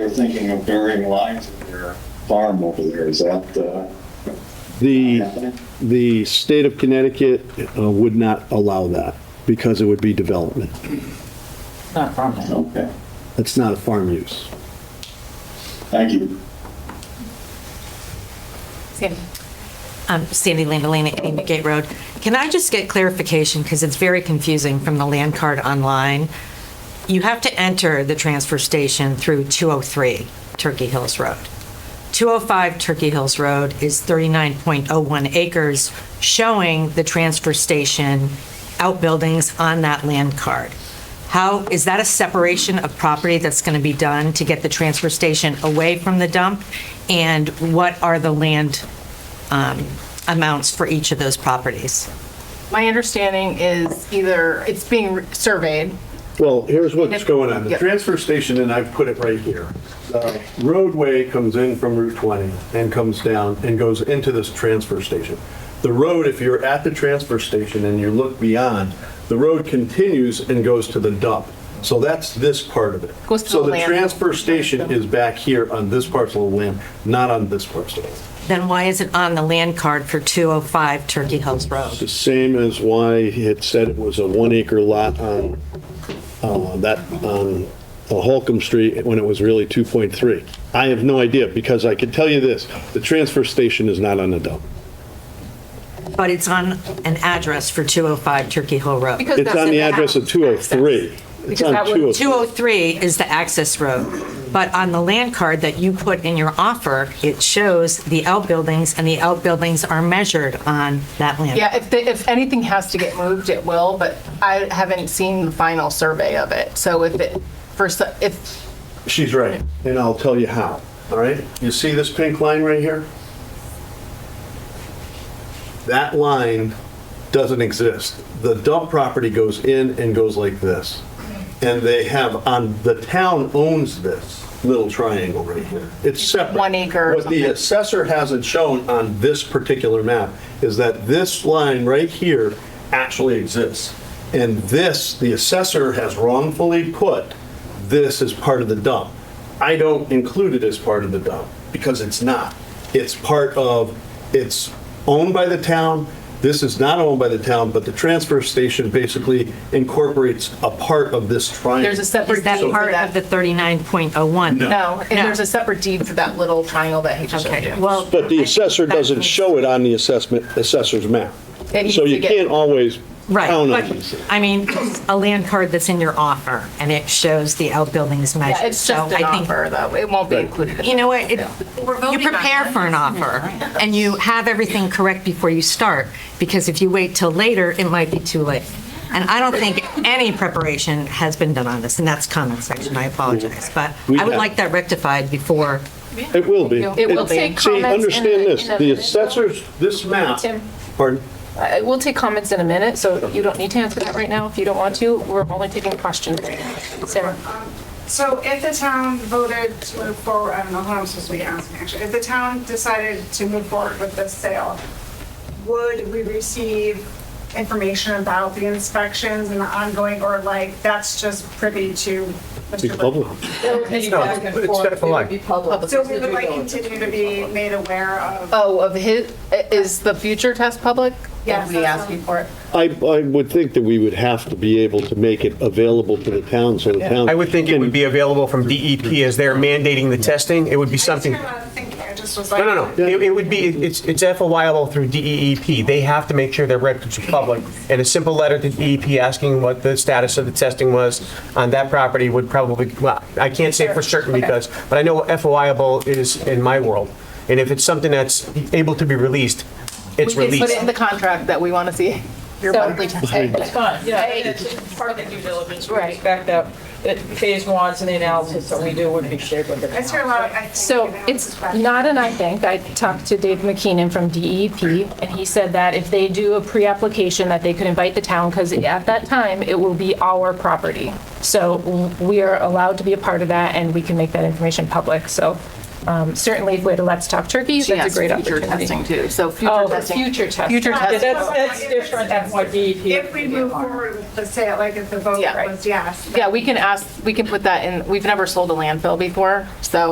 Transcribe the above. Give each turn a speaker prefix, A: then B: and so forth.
A: they're thinking of burying lines in their farm over there. Is that uh,
B: The,
A: happening?
B: the state of Connecticut uh, would not allow that because it would be development.
C: Not farmland.
A: Okay,
B: That's not a farm use.
A: thank you.
D: Um, Sandy Landolina, Amy Gate Road. Can I just get clarification, because it's very confusing from the land card online? You have to enter the transfer station through 203 Turkey Hills Road. 205 Turkey Hills Road is 39.01 acres, showing the transfer station outbuildings on that land card. How, is that a separation of property that's going to be done to get the transfer station away from the dump? And what are the land um, amounts for each of those properties.
E: My understanding is either it's being surveyed.
B: Well, here's what's going on. The
E: Yep.
B: transfer station, and I've put it right here. The roadway comes in from Route 20 and comes down and goes into this transfer station. The road, if you're at the transfer station and you look beyond, the road continues and goes to the dump. So that's this part of it.
E: Goes to
B: So
E: the
B: the
E: land.
B: transfer station is back here on this parcel of land, not on this parcel.
D: Then why is it on the land card for 205 Turkey Hills Road?
F: the same as why he had said it was a one-acre lot on, uh, that, on uh, Holcomb Street when it was really 2.3. I have no idea, because I can tell you this, the transfer station is not on the dump.
D: But it's on an address for 205 Turkey Hill Road.
E: because
F: It's
E: that's
F: on
E: in
F: the address of
E: house
F: 203. It's
E: Because
F: on
E: that
F: 203.
E: would-
D: 203 is the access road, but on the land card that you put in your offer, it shows the outbuildings, and the outbuildings are measured on that land.
E: Yeah, if, they- if anything has to get moved, it will, but I haven't seen the final survey of it. So if it, for, so- if,
F: She's right, and I'll tell you how, all right? You see this pink line right here?
B: That line doesn't exist. The dump property goes in and goes like this. And they have, on, the town owns this little triangle right here. It's separate.
E: One acre or
B: What the
E: something.
B: assessor hasn't shown on this particular map is that this line right here actually exists. And this, the assessor has wrongfully put, this is part of the dump. I don't include it as part of the dump because it's not. It's part of, it's owned by the town. This is not owned by the town, but the transfer station basically incorporates a part of this triangle.
E: there's a separate
D: Is
E: deed
D: that
E: for
D: part of the
E: that.
D: 39.01?
E: No, and there's a separate deed for that little triangle that he just showed
D: Okay,
E: you.
D: well.
F: But the assessor doesn't show it on the assessment, assessor's map.
E: It needs
F: So
E: to
F: you
E: get-
F: can't always
D: Right,
F: count on
D: but,
F: these.
D: I mean, a land card that's in your offer, and it shows the outbuildings measured.
E: Yeah, It's
D: So
E: just an
D: I think-
E: offer though. It won't be
F: Right.
E: included. in
D: You know what, it-
G: We're
D: you
G: voting on
D: prepare
G: it.
D: for an offer, and you have everything correct before you start, because if you wait till later, it might be too late. And I don't think any preparation has been done on this, and that's comment section, I apologize, but
F: We
D: I would
F: have-
D: like that rectified before,
F: It will be.
E: It will be.
F: See, understand this, the assessors,
B: This map,
H: Tim.
B: pardon?
H: Uh, We'll take comments in a minute, so you don't need to answer that right now if you don't want to. We're only taking questions. Sarah?
G: So if the town voted to move forward, I don't know what I'm supposed to be asking, actually. If the town decided to move forward with this sale, would we receive information about the inspections and the ongoing, or like, that's just privy to Mr.
F: the public.
E: public.
G: So we would like continue to be made aware of,
E: Oh, of his, is the future test public?
G: Yes,
E: Are we
G: that's
E: asking for it?
G: what-
F: I, I would think that we would have to be able to make it available to the town, so the town.
I: I would think it
F: can-
I: would be available from DEP as they're mandating the testing. It would be something,
G: I'm not thinking, I just was like.
I: no, no, no. It it would be, it's, it's FOIable through DEEP. They have to make sure their records are public. And a simple letter to DEP asking what the status of the testing was on that property would probably, well, I can't say for certain because, but I know what FOIable is in my world. And if it's something that's able to be released, it's
E: We can put it in
I: released.
E: the contract that we want to see. your
H: So-
E: monthly test.
J: It's fine, yeah, I mean, it's part of the due diligence, we
H: Right.
J: expect that, that phase ones and the analysis that we do would be shared with the
G: I hear a
J: town.
G: lot of, I think.
H: So
G: you know,
H: it's
G: back-
H: not an I think. I talked to Dave McKeenan from DEP, and he said that if they do a pre-application, that they could invite the town, because at that time, it will be our property. So we are allowed to be a part of that, and we can make that information public. So Um, Certainly, if we had a Let's Talk Turkey,
E: She
H: that's a
E: asked
H: great
E: future
H: opportunity.
E: testing too, so future
H: Oh,
E: testing.
H: future testing.
E: Future
G: Yeah,
E: testing.
J: That's, that's different than what DEP.
G: If we move forward with the sale, like if the vote
E: Yeah.
G: was yes,
E: Yeah, we can ask, we can put that in, we've never sold a landfill before, so